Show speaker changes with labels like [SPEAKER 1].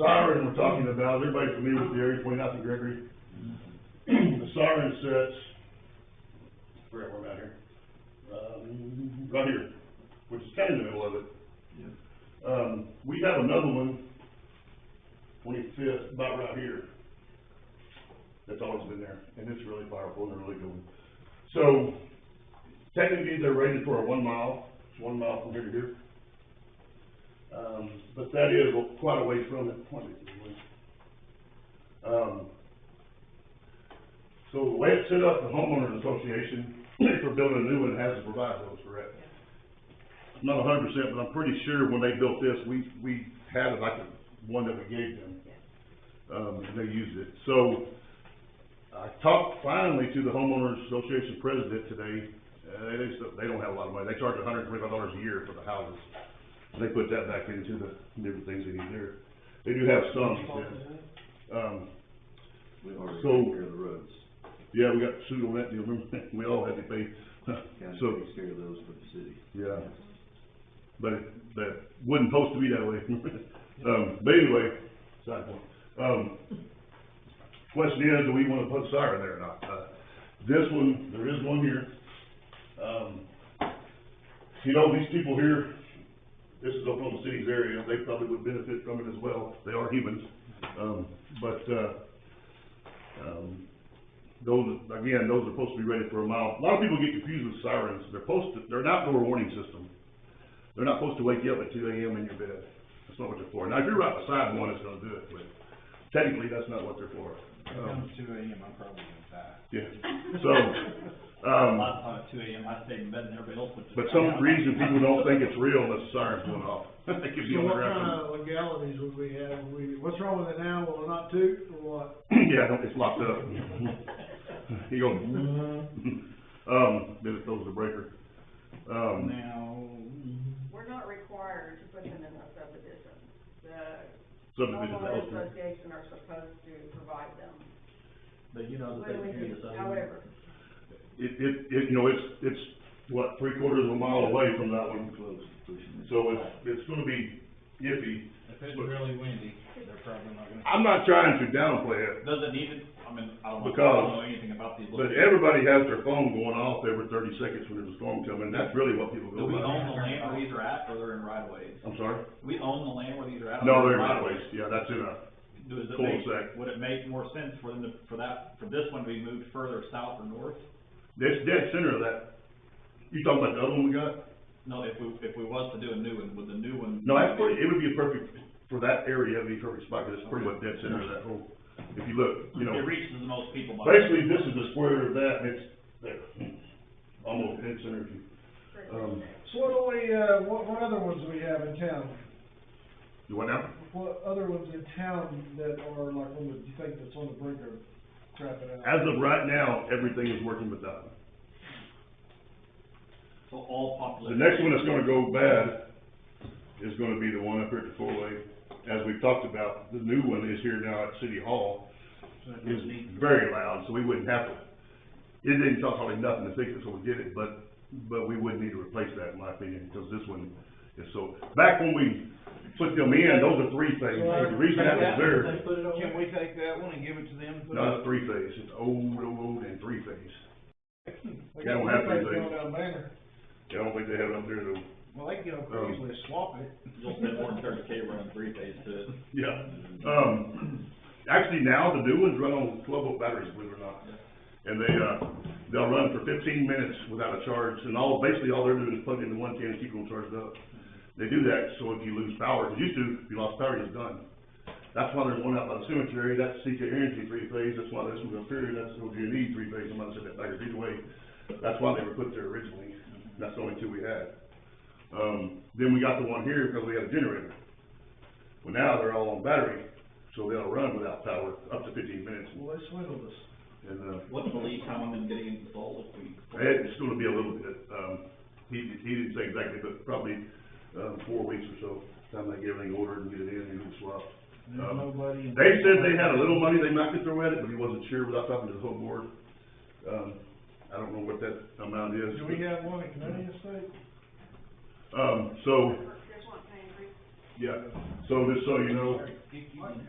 [SPEAKER 1] siren we're talking about, is everybody familiar with the area, pointing out to Gregory? The siren sets, where am I at here? Um, right here, which is kind of in the middle of it. Um, we have another one, twenty-fifth, about right here. That's always been there, and it's really powerful and a really good one. So technically, they're rated for a one mile, it's one mile from here to here. Um, but that is quite a ways from it, twenty, um, so the way it's set up, the homeowners association, for building a new one, has to provide those, correct? Not a hundred percent, but I'm pretty sure when they built this, we, we had it like the one that we gave them. Um, and they used it, so, I talked finally to the homeowners association president today, uh, they, they still- they don't have a lot of money, they charge hundred and twenty-five dollars a year for the houses. They put that back into the different things they need there. They do have some, she said. Um,
[SPEAKER 2] We already
[SPEAKER 1] So-
[SPEAKER 2] take care of the roads.
[SPEAKER 1] yeah, we got sued on that deal, remember? We all had to pay.
[SPEAKER 2] County
[SPEAKER 1] So-
[SPEAKER 2] takes care of those for the city.
[SPEAKER 1] Yeah. But it- that wasn't supposed to be that way. Um, but anyway, side point. Um, question is, do we wanna put a siren there or not? Uh, This one, there is one here. Um, you know, these people here, this is Oklahoma City's area, they probably would benefit from it as well. They are humans. Um, but, uh, um, those, again, those are supposed to be rated for a mile. A lot of people get confused with sirens. They're supposed to, they're an outdoor warning system. They're not supposed to wake you up at two AM in your bed. That's not what they're for. Now, if you're right beside one, it's gonna do it, but technically, that's not what they're for.
[SPEAKER 3] If it
[SPEAKER 1] Um,
[SPEAKER 3] comes two AM, I'm probably gonna die.
[SPEAKER 1] yeah, so, um.
[SPEAKER 4] I thought at two AM, I stayed in bed and everybody else went to.
[SPEAKER 1] But some reason people don't think it's real unless the siren's going off. That gives you on the
[SPEAKER 5] So what
[SPEAKER 1] ground.
[SPEAKER 5] kind of legalities would we have? Would we, what's wrong with it now? Will it not do, or what?
[SPEAKER 1] Yeah, don't- it's locked up. You go, um, then it throws the breaker. Um,
[SPEAKER 3] Now,
[SPEAKER 6] We're not required to put them in a subdivision. The
[SPEAKER 1] subdivision,
[SPEAKER 6] homeowners
[SPEAKER 1] okay.
[SPEAKER 6] association are supposed to provide them.
[SPEAKER 4] But you know that they
[SPEAKER 6] When we
[SPEAKER 4] hear
[SPEAKER 6] do,
[SPEAKER 4] the same.
[SPEAKER 6] however,
[SPEAKER 1] It, it, it, you know, it's, it's, what, three quarters of a mile away from that one,
[SPEAKER 2] Close, pushing it.
[SPEAKER 1] so it's, it's gonna be iffy.
[SPEAKER 3] if it's really windy, they're probably not gonna.
[SPEAKER 1] I'm not trying to downplay it,
[SPEAKER 4] Does it need it? I mean, I don't know, I
[SPEAKER 1] Because-
[SPEAKER 4] don't know anything about these.
[SPEAKER 1] but
[SPEAKER 4] little-
[SPEAKER 1] everybody has their phone going off every thirty seconds when there's a storm coming, that's really what people go
[SPEAKER 4] Do we
[SPEAKER 1] by.
[SPEAKER 4] own the land where these are at, or they're in right of ways?
[SPEAKER 1] I'm sorry?
[SPEAKER 4] Do we own the land where these are at? or
[SPEAKER 1] No, they're
[SPEAKER 4] in
[SPEAKER 1] not
[SPEAKER 4] right-of-ways?
[SPEAKER 1] waste, yeah, that's in a,
[SPEAKER 4] Does it
[SPEAKER 1] Cul-de-sac.
[SPEAKER 4] make, would it make more sense for them to, for that, for this one to be moved further south or north?
[SPEAKER 1] That's dead center of that. You talking about the other one we got?
[SPEAKER 4] No, if we, if we was to do a new one, would the new one?
[SPEAKER 1] No, that's pretty, it would be a perfect, for that area, it'd be a perfect spot, 'cause it's pretty much dead center of that whole, if you look, you
[SPEAKER 4] It
[SPEAKER 1] know.
[SPEAKER 4] reaches the most people by.
[SPEAKER 1] Basically, this is the square of that, and it's there, almost dead center. if you- Um,
[SPEAKER 5] So what do we, uh, what, what other ones do we have in town?
[SPEAKER 1] you what now?
[SPEAKER 5] What other ones in town that are like, on the you think that's on the brink of crapping out?
[SPEAKER 1] As of right now, everything is working with that. one.
[SPEAKER 4] So all
[SPEAKER 1] The
[SPEAKER 4] population.
[SPEAKER 1] next one that's gonna go bad is gonna be the one up here at the four-way. As we've talked about, the new one is here now at City Hall, is very loud, so we wouldn't have to, it didn't cost hardly nothing to fix it, so we did it, but, but we would need to replace that, in my opinion, because this one is so, back when we put them in, those are three phase, the reason that was there,
[SPEAKER 3] Can we take that one and give it to them? and put
[SPEAKER 1] no,
[SPEAKER 3] it-
[SPEAKER 1] it's three phase, it's old, old, old, and three phase.
[SPEAKER 5] They
[SPEAKER 1] Yeah,
[SPEAKER 5] got
[SPEAKER 1] we'll have
[SPEAKER 5] rebates
[SPEAKER 1] to do.
[SPEAKER 5] going down Banner.
[SPEAKER 1] I don't think they have it up there though. Um,
[SPEAKER 3] Well, they can get on Craigslist, swap it.
[SPEAKER 4] You'll spend more than thirty K running three phase to it.
[SPEAKER 1] Yeah, um, actually now the new ones run on twelve volt batteries, believe it or not. And they, uh, they'll run for fifteen minutes without a charge, and all, basically all they're doing is plugging into one ten and keep them charged up. They do that, so if you lose power, 'cause used to, if you lost power, you're done. That's why there's one out by the cemetery, that's CK Energy three phase, that's why this one's up here, that's OG&E E three phase, I'm not saying that backwards either way. That's why they were put there originally, that's the only two we had. Um, then we got the one here because we had a generator. Well, now they're all on battery, so they'll run without power up to fifteen minutes,
[SPEAKER 5] Well, they swindled us.
[SPEAKER 1] and, uh,
[SPEAKER 4] What's the lead time on them getting installed if we?
[SPEAKER 1] it's gonna be a little bit, um, he, he didn't say exactly, but probably, um, four weeks or so, time they get everything ordered and get it in and get it swapped.
[SPEAKER 3] There's
[SPEAKER 1] Um,
[SPEAKER 3] nobody. in-
[SPEAKER 1] They said they had a little money they might could throw at it, but he wasn't sure without talking to the whole board. Um, I don't know what that amount is.
[SPEAKER 5] Do we have one in Canadian State?
[SPEAKER 1] Um, so,
[SPEAKER 6] There's one thing,
[SPEAKER 7] yeah, so just so you know,
[SPEAKER 1] Sorry, keep- keep-